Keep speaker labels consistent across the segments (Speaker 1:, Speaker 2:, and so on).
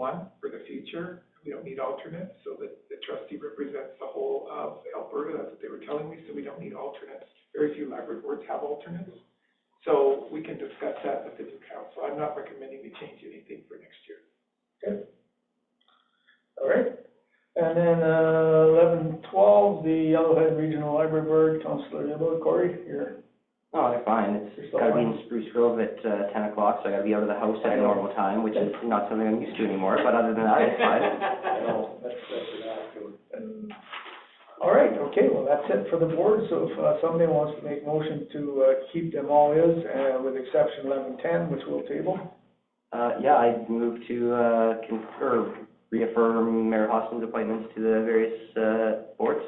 Speaker 1: one for the future. We don't need alternates, so that the trustee represents the whole of Alberta, that's what they were telling me, so we don't need alternates. Very few library boards have alternates. So we can discuss that with the new council. I'm not recommending we change anything for next year.
Speaker 2: All right. And then, uh, eleven twelve, the Yellowhead Regional Library Board, Counselor Nibble, Corey, you're,
Speaker 3: No, Oh, they're fine, it's,
Speaker 2: You're
Speaker 3: it's
Speaker 2: still
Speaker 3: gotta be
Speaker 2: fine?
Speaker 3: in Spruce Grove at, uh, ten o'clock, so I gotta be out of the house at
Speaker 2: I
Speaker 3: a
Speaker 2: know.
Speaker 3: normal time, which is not something I'm used to anymore, but other than that, it's fine.
Speaker 2: No, that's, that's an attitude. All right, okay, well, that's it for the board, so if uh, somebody wants to make motion to, uh, keep them all is, uh, with exception eleven ten, which we'll table.
Speaker 3: Uh, yeah, I move to, uh, confer, reaffirm Mayor Hoskins' appointments to the various, uh, boards.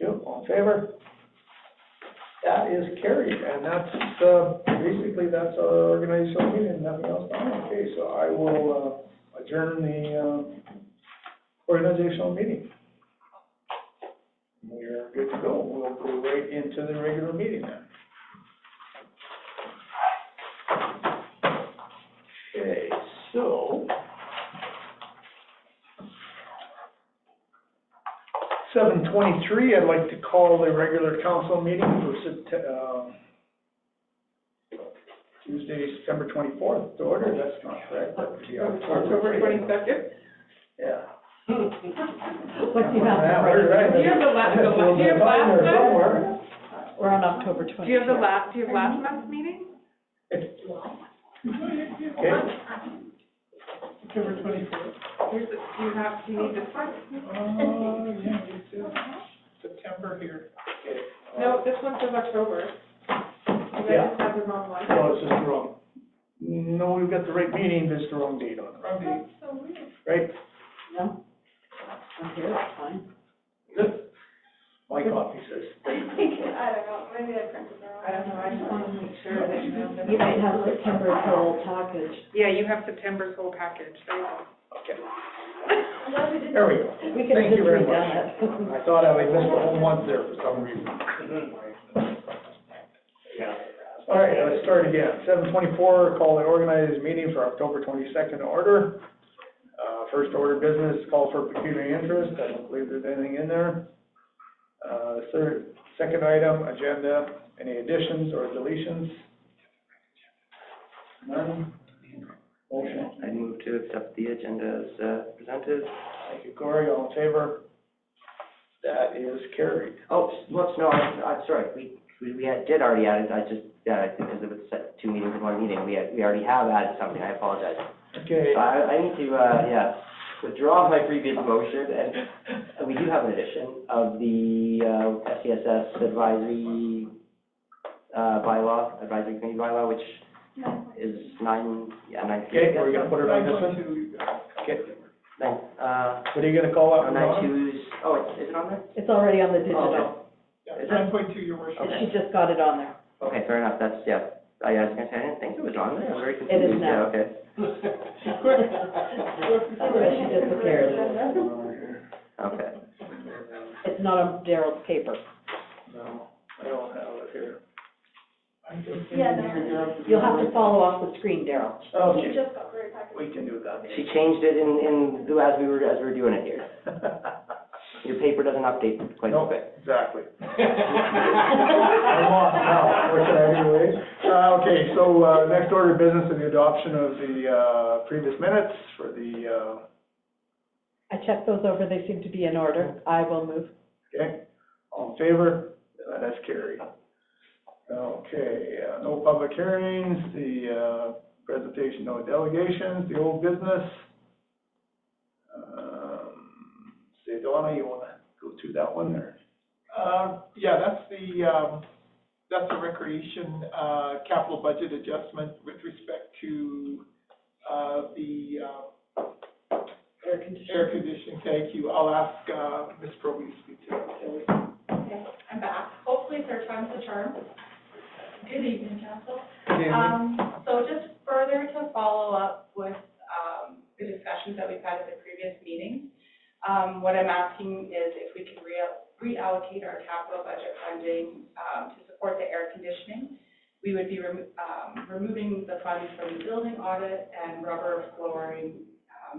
Speaker 2: Yep, all in favor? That is carried, and that's, uh, basically, that's our organizational meeting, nothing else. Okay, so I will, uh, adjourn the, uh, organizational meeting. We're good to go, we'll go right into the regular meeting then. Okay, so. Seven twenty-three, I'd like to call the regular council meeting for Sept- uh, Tuesday, September twenty-fourth, to order, that's not correct, that would be October.
Speaker 4: twenty-second?
Speaker 2: Yeah.
Speaker 5: What's the amount?
Speaker 2: Yeah, we're right.
Speaker 4: Do you have the la- the la- do you have last
Speaker 2: Somewhere,
Speaker 4: time?
Speaker 2: somewhere.
Speaker 5: We're on October
Speaker 4: Do
Speaker 5: twenty.
Speaker 4: you have the last, do you have last month's meeting?
Speaker 2: Okay.
Speaker 1: October twenty-fourth.
Speaker 4: Here's the, do you have, do you need this one?
Speaker 1: Uh, yeah, it's in September here.
Speaker 4: No, this one says October. You guys
Speaker 2: Yeah.
Speaker 4: just have the wrong one.
Speaker 2: No, it's just the wrong, no, we've got the right meeting, but it's the wrong date on it,
Speaker 1: From the,
Speaker 2: right?
Speaker 5: No. Okay, that's fine.
Speaker 2: My copy says.
Speaker 4: I don't know, I just wanna make sure that you know. that-
Speaker 5: You might have September whole package.
Speaker 4: Yeah, you have September's whole package, there you go.
Speaker 2: Okay. There we go.
Speaker 5: We could have
Speaker 2: Thank
Speaker 5: just
Speaker 2: you very
Speaker 5: redone
Speaker 2: much.
Speaker 5: it.
Speaker 2: I thought I would miss the whole month there for some reason. Yeah. All right, let's start again. Seven twenty-four, call the organized meeting for October twenty-second order. Uh, first order of business, call for pecuniary interest. I don't believe there's anything in there. Uh, the third, second item, agenda, any additions or deletions? None? Motion,
Speaker 3: I move to accept the agenda as, uh, presented.
Speaker 2: thank you, Corey. All in favor? That is carried.
Speaker 3: Oh, s- whoops, no, I, I'm sorry, we, we, we had, did already add it, I just, uh, because it was set two meetings in one meeting, we had, we already have added something, I apologize.
Speaker 2: Okay.
Speaker 3: So I, I need to, uh, yeah, withdraw my previous motion, and we do have an addition of the, uh, SCSS advisory, uh, bylaw, advisory committee bylaw, which is nine, yeah, nine.
Speaker 2: Okay, we're gonna put it on this one? Okay,
Speaker 3: Nine, uh,
Speaker 2: what are you gonna call
Speaker 3: oh,
Speaker 2: out?
Speaker 3: nine twos, oh, it's- is it on there?
Speaker 5: It's already on the digital.
Speaker 3: Oh,
Speaker 1: yeah, nine point two, your
Speaker 2: Oh,
Speaker 1: worship.
Speaker 3: Okay.
Speaker 5: She just got it on there.
Speaker 3: no. Okay, fair enough, that's, yeah, I I was gonna say, I didn't think it was on there, I'm very confused.
Speaker 5: now.
Speaker 3: Yeah, okay,
Speaker 5: That's why she disappeared.
Speaker 3: okay.
Speaker 5: It's not on Daryl's paper.
Speaker 2: No, I don't have it here.
Speaker 5: You'll have
Speaker 2: Mm-hmm.
Speaker 5: to follow off the screen, Daryl.
Speaker 2: Oh, Okay. We can do that.
Speaker 3: She changed it in, in, the- as we were, as we were doing it here. Your paper doesn't update quite a
Speaker 2: Nope,
Speaker 3: bit.
Speaker 2: exactly. I'm off now, what can I do, eh? Uh, okay, so, uh, next order of business is the adoption of the, uh, previous minutes for the, uh,
Speaker 5: I checked those over. They seem to be in order. I will move.
Speaker 2: Okay, all in favor? Uh, That's carried. Okay, uh, no public hearings, the, uh, presentation, no delegations, the old business. Um, say, Donna, you wanna go through that one there?
Speaker 1: Uh, yeah, that's the, um, that's the recreation, uh, capital budget adjustment with respect to, uh, the, uh,
Speaker 5: Air conditioning.
Speaker 1: air conditioning, thank you. I'll ask, uh, Ms. Proby to speak to that.
Speaker 6: I'm back, hopefully third time's the charm. Good evening, council.
Speaker 2: Yeah.
Speaker 6: Um, so just further to follow up with, um, the discussions that we've had at the previous meetings, um, what I'm asking is if we could rea- reallocate our capital budget funding, um, to support the air conditioning. We would be, remo- um, removing the funds from the building audit and rubber flooring